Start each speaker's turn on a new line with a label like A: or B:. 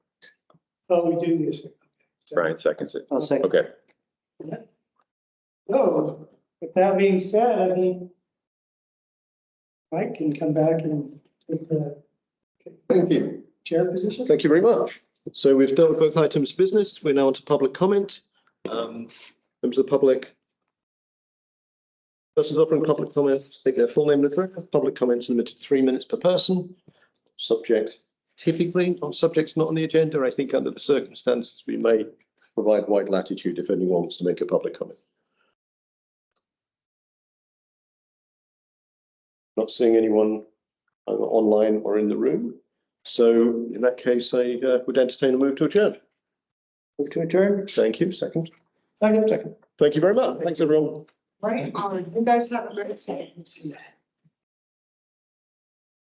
A: Oh, we do need a second.
B: Brian seconds it.
C: I'll second.
B: Okay,
A: So, with that being said, I think Mike can come back and take the
D: Thank you.
A: chair position.
D: Thank you very much. So we've dealt with both items of business. We're now on to public comment. Um, members of the public. Persons offering public comment, take their full name and address. Public comments limited to three minutes per person. Subjects typically, on subjects not on the agenda, I think under the circumstances, we may provide wide latitude if anyone wants to make a public comment. Not seeing anyone either online or in the room. So in that case, I uh, would entertain a move to adjourn.
A: Move to adjourn.
D: Thank you. Second.
A: Second.
D: Second. Thank you very much. Thanks, everyone.
A: Right, on. you guys have a great day.